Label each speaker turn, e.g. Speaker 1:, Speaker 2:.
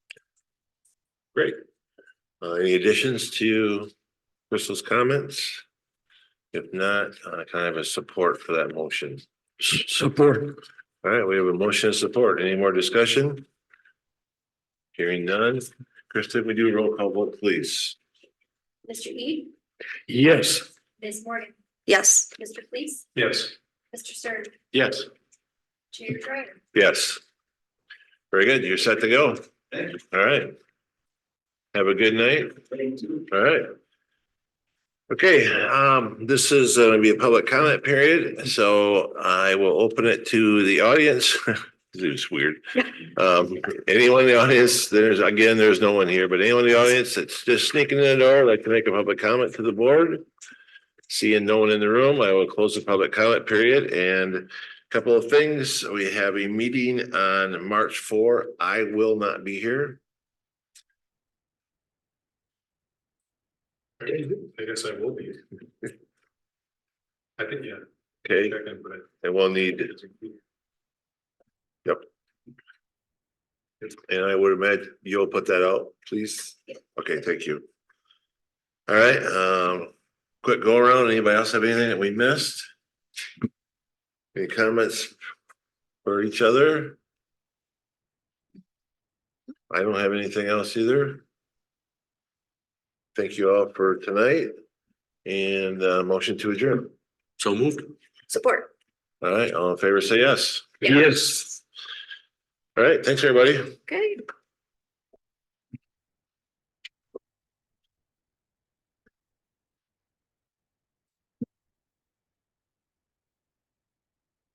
Speaker 1: Great. Uh, any additions to Crystal's comments? If not, uh, kind of a support for that motion.
Speaker 2: Support.
Speaker 1: All right, we have a motion of support. Any more discussion? Hearing none. Kristen, we do a roll call vote, please.
Speaker 3: Mr. Ede,
Speaker 2: Yes.
Speaker 3: Ms. Morgan,
Speaker 4: Yes,
Speaker 3: Mr. Fleece,
Speaker 2: Yes.
Speaker 3: Mr. Stern,
Speaker 1: Yes.
Speaker 3: Chair Dryer.
Speaker 1: Yes. Very good. You're set to go. All right. Have a good night. All right. Okay, um, this is uh, gonna be a public comment period, so I will open it to the audience. It's weird. Um, anyone in the audience, there's, again, there's no one here, but anyone in the audience that's just sneaking in the door, like to make a public comment to the board? Seeing no one in the room, I will close the public comment period and Couple of things, we have a meeting on March four, I will not be here.
Speaker 2: I guess I will be. I think, yeah.
Speaker 1: Okay,
Speaker 2: check in, but I-
Speaker 1: and we'll need, and I would imagine you'll put that out, please? Okay, thank you. All right, um, quick go around, anybody else have anything that we missed? Any comments for each other? I don't have anything else either. Thank you all for tonight and uh, motion to adjourn.
Speaker 2: So moved.
Speaker 4: support.
Speaker 1: All right, all in favor, say yes.
Speaker 2: Yes.
Speaker 1: All right, thanks, everybody.
Speaker 4: Okay.